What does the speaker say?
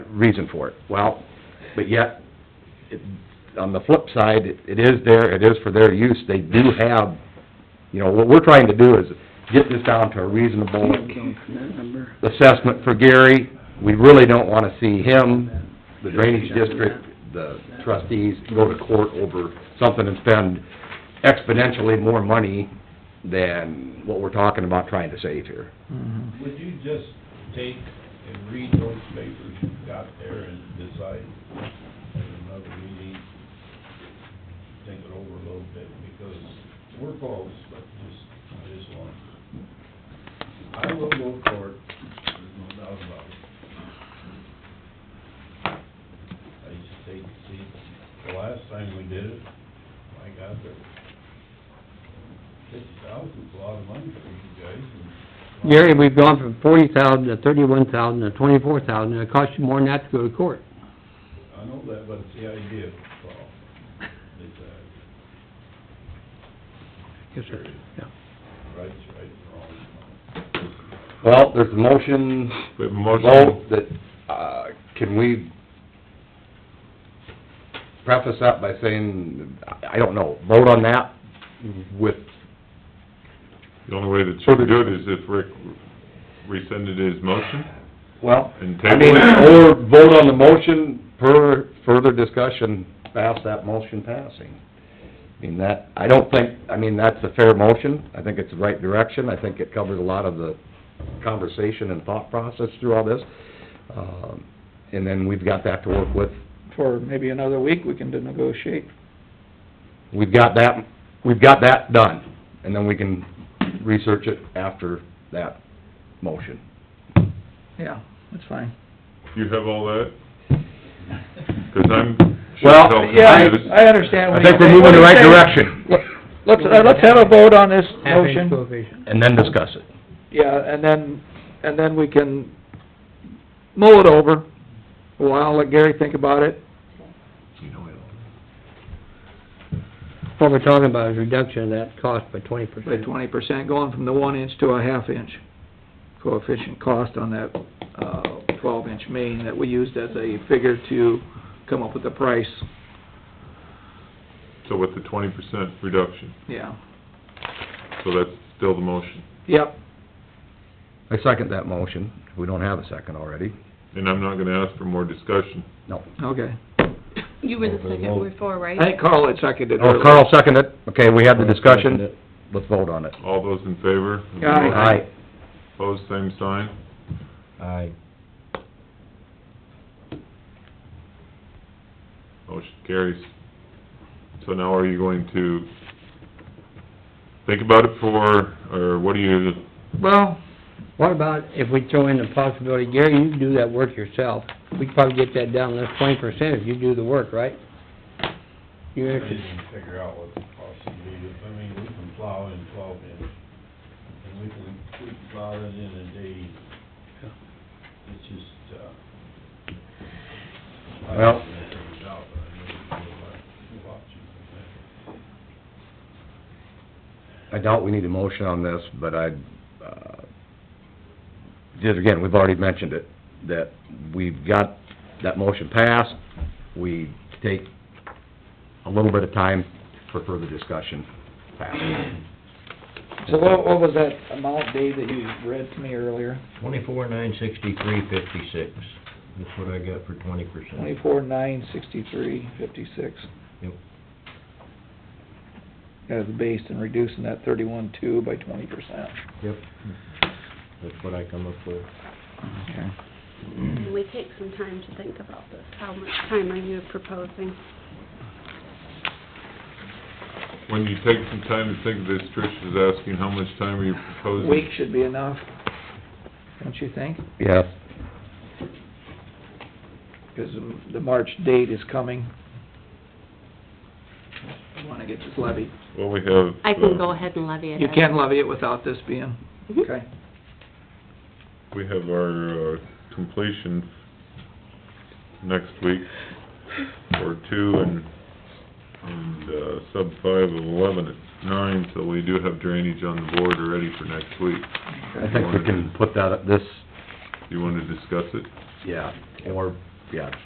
reason for it. Well, but yet, it, on the flip side, it- it is there, it is for their use, they do have, you know, what we're trying to do is get this down to a reasonable assessment for Gary. We really don't wanna see him, the drainage district, the trustees go to court over something and spend exponentially more money than what we're talking about trying to save here. Would you just take and read those papers you've got there and decide at another meeting, think it over a little bit, because we're close, but just, I just want, I will go to court, there's no doubt about it. I just hate to see, the last time we did it, I got there, fifty thousand's a lot of money for you guys, and Gary, we've gone from forty thousand to thirty-one thousand to twenty-four thousand, and it costs you more than that to go to court. I know that, but it's the idea, Paul. It's, uh, Yes, sir. Yeah. right's right, wrong's Well, there's a motion, We have a vote motion, that, uh, can we preface that by saying, I I don't know, vote on that with, the only way that you can do it is if Rick rescinded his motion, well, And I table mean, it. or vote on the motion per further discussion, pass that motion passing. I mean, that, I don't think, I mean, that's a fair motion, I think it's the right direction, I think it covers a lot of the conversation and thought process through all this. Um, And then we've got that to work with For maybe another week, we can negotiate. we've got that, we've got that done, and then we can research it after that motion. Yeah, that's fine. you have all that? 'Cause I'm sure Well, as hell Yeah, confused. I I understand I what you're think we're saying. moving in the right What you're saying- direction, Let's, uh, let's have a vote on this Half-inch motion, coefficient. and then discuss it. yeah, and then, and then we can mull it over a while, let Gary think about it. What we're talking about is reduction of that cost by twenty By percent. twenty percent, going from the one inch to a half inch coefficient cost on that, uh, twelve inch main that we used as a figure to come up with the price, So with the twenty percent reduction, yeah. so that's still the motion. Yep, I second that motion, if we don't have a second already. And I'm not gonna ask for more discussion. No. okay. You were the second before, right? I think Carl had seconded Oh, earlier. Carl seconded it, okay, we had the discussion, let's vote on it. All those in favor? of the Aye. motion? Aye. Opposed, same sign? Aye. Motion carries. So now are you going to think about it for, or what do you, Well, What about if we throw in the possibility, Gary, you do that work yourself, we could probably get that down, that's twenty percent if you do the work, right? You wrong. I actually, didn't figure out what the possibility is, I mean, we can plow in twelve inch, and we can, we can plow it in a day. It's just, uh. I Well- haven't figured it out, but I know it's a lot- a lot cheaper than that. I doubt we need a motion on this, but I, uh, just again, we've already mentioned it, that we've got that motion passed, we take a little bit of time for further discussion. So what, what was that amount, Dave, that you read to me earlier? Twenty-four, nine sixty-three, fifty-six. That's what I got for twenty percent. Twenty-four, nine, sixty-three, fifty-six. Yep. As the base and reducing that thirty-one, two by twenty percent. Yep. That's what I come up with. Okay. Can we take some time to think about this? How much time are you proposing? when you take some time to think of this, Trish is asking how much time are you proposing? Week should be enough, don't you think? Yes. Because the March date is coming. I wanna get this levied. Well, we have... I can uh, go ahead and levy it. You can levy it without this being, Mhm. okay? We have our uh, completion next week for two and, and uh, sub five of eleven at nine, so we do have drainage on the board already for next week. I think we can put that, at this, Do you want to discuss it? yeah, or yeah,